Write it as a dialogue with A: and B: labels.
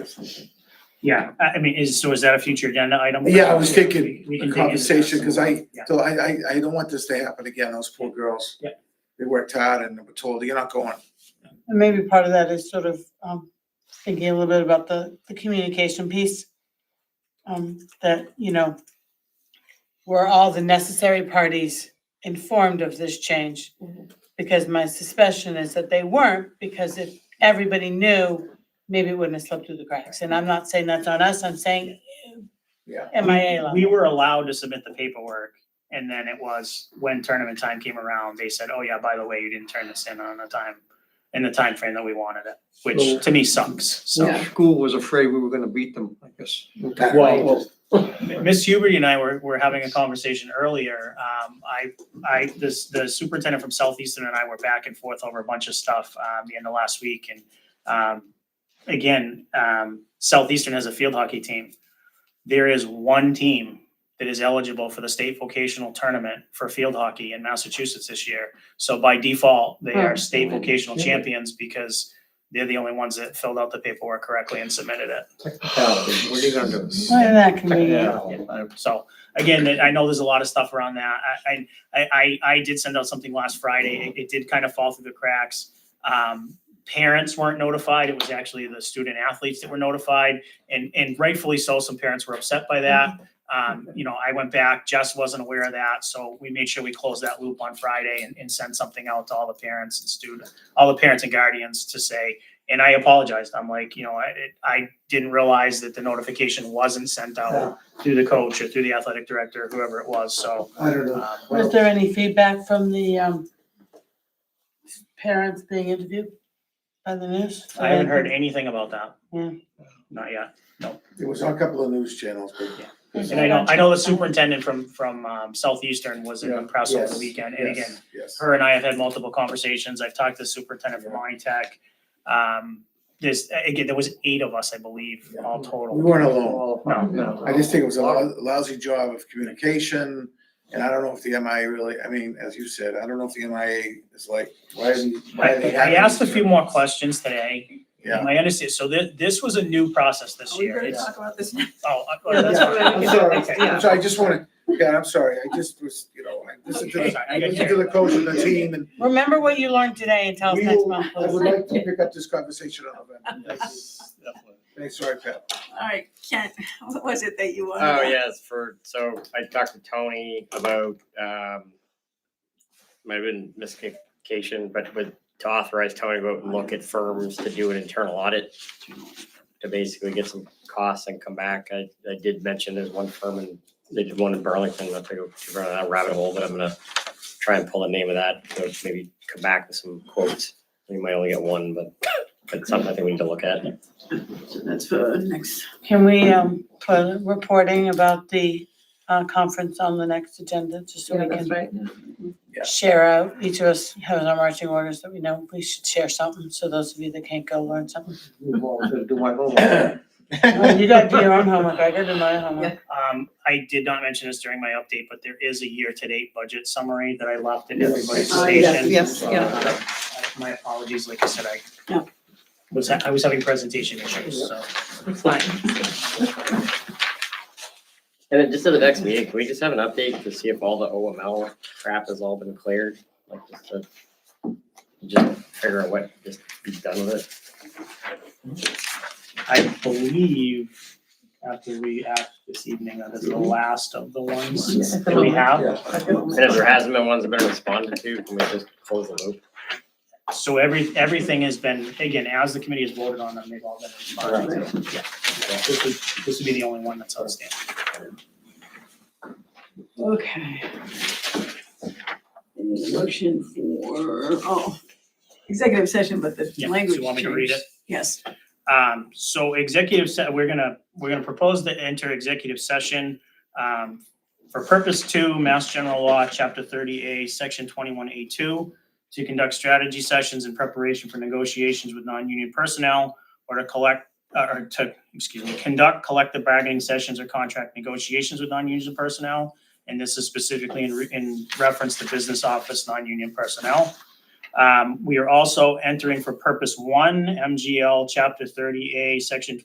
A: Yeah, I I mean, is, so is that a future agenda item?
B: Yeah, I was thinking
A: We can dig
B: a
A: into that
B: conversation, because
A: some
B: I,
A: more. Yeah.
B: so I, I, I don't want this to happen again, those poor girls.
A: Yeah.
B: They worked hard and were told, you're not going.
C: And maybe part of that is sort of um thinking a little bit about the the communication piece. Um, that, you know, were all the necessary parties informed of this change? Because my suspicion is that they weren't, because if everybody knew, maybe it wouldn't have slipped through the cracks. And I'm not saying that's on us, I'm saying
B: Yeah.
C: MIA
A: We
C: level.
A: were allowed to submit the paperwork and then it was when tournament time came around, they said, oh yeah, by the way, you didn't turn this in on the time, in the time frame that we wanted it,
D: So-
A: which to me sucks, so.
D: The school was afraid we were gonna beat them, I guess.
B: Well,
A: M- Ms. Huberty and I were, were having a conversation earlier. Um, I, I, this, the superintendent from Southeastern and I were back and forth over a bunch of stuff, um, the end of last week and, um, again, um, Southeastern has a field hockey team. There is one team that is eligible for the state vocational tournament for field hockey in Massachusetts this year. So by default, they are state vocational champions because they're the only ones that filled out the paperwork correctly and submitted it.
D: Technicality, what are you gonna do?
C: Why did that convenient?
D: Technicality.
A: Uh, So again, I know there's a lot of stuff around that. I, I, I, I did send out something last Friday. It, it did kind of fall through the cracks. Um, parents weren't notified. It was actually the student athletes that were notified and, and rightfully so, some parents were upset by that. Um, you know, I went back, Jess wasn't aware of that, so we made sure we closed that loop on Friday and, and sent something out to all the parents and student, all the parents and guardians to say, and I apologized. I'm like, you know, I, it- I didn't realize that the notification wasn't sent out through the coach or through the athletic director, whoever it was, so.
B: I don't know.
A: um,
C: Was there any feedback from the um parents being interviewed by the news?
A: I haven't heard anything about that.
C: Hmm.
A: Not yet.
B: It was on a couple of news channels, but
A: And I know, I know the superintendent from, from, um, Southeastern was in the
B: Yeah,
A: press over the
B: yes,
A: weekend, and again,
B: yes, yes.
A: her and I have had multiple conversations. I've talked to the superintendent from Monty Tech. Um, this, again, there was eight of us, I believe,
B: Yeah.
A: all
B: We
A: total.
B: weren't alone.
A: No,
D: no.
B: I just think it was a lou- lousy job of communication. And I don't know if the MIA really, I mean, as you said, I don't know if the MIA is like, why are they, why
A: I,
B: are they
A: I
B: having
A: asked a
B: these
A: few more
B: tournaments?
A: questions today.
B: Yeah.
A: I understand, so thi- this was a new process this
E: Are Oh, we
A: year.
E: gonna
A: It's-
E: talk about this?
A: Oh, I-
E: No, that's
B: Yeah,
E: what I-
B: I'm sorry.
E: okay,
B: I'm sorry, I just wanna, yeah, I'm sorry, I just was, you know, I listened to
A: Okay,
B: the,
A: I
B: I
A: got
B: listened to the
A: you.
B: coach and the team and
C: Remember what you learned today and tell us
B: we
C: next
B: will,
C: month,
B: I
C: please.
B: would like to pick up this conversation on November. Thanks, sorry, Pat.
E: All right, Kent, what was it that you wanted?
F: Oh yes, for so I talked to Tony about um might have been miscommunication, but with to authorize Tony to go out and look at firms to do an internal audit to basically get some costs and come back. I I did mention there's one firm and they did one in Burlington, not to go too far down that rabbit hole, but I'm gonna try and pull the name of that, so maybe come back with some quotes. We might only get one, but but something I think we need to look at.
E: So That's for next.
C: Can we, um, put reporting about the, uh, conference on the next agenda, just so we can
E: right.
B: Yeah.
C: share out, each of us has our marching orders that we know we should share something, so those of you that can't go learn something.
D: Well, I'm gonna Do my homework.
C: Well, You gotta do your own homework, I gotta do my homework.
A: Um, I did not mention this during my update, but there is a year-to-date budget summary that I left in
B: Yes.
A: everybody's
B: Oh,
A: station.
E: yes,
A: Uh, My apologies, like I said, I
C: No.
A: was, ha- I was having presentation issues, so.
F: And then just at the next meeting, can we just have an update to see if all the OML crap has all been cleared? Like just to just figure out what, just be done with it.
A: I believe after we act this evening, that is the last of the ones that we have.
F: And if there hasn't been ones that have been responded to, can we just close the loop?
A: So every, everything has been, again, as the committee has voted on them, they've all been responded to. Yeah. This would, this would be the only one that's outstanding.
E: Okay. And the Motion for, oh, executive session, but the
A: Yeah, so
E: language
A: you want me to read
E: changed.
A: it?
E: Yes,
A: Um, so executive, se- we're gonna, we're gonna propose to enter executive session, um, for purpose two, Mass General Law, Chapter thirty A, Section twenty-one A two, to conduct strategy sessions in preparation for negotiations with non-union personnel or to collect, uh, or to, excuse me, conduct collective bargaining sessions or contract negotiations with non-union personnel. And this is specifically in, re- in reference to business office, non-union personnel. Um, we are also entering for purpose one, MGL chapter thirty A, section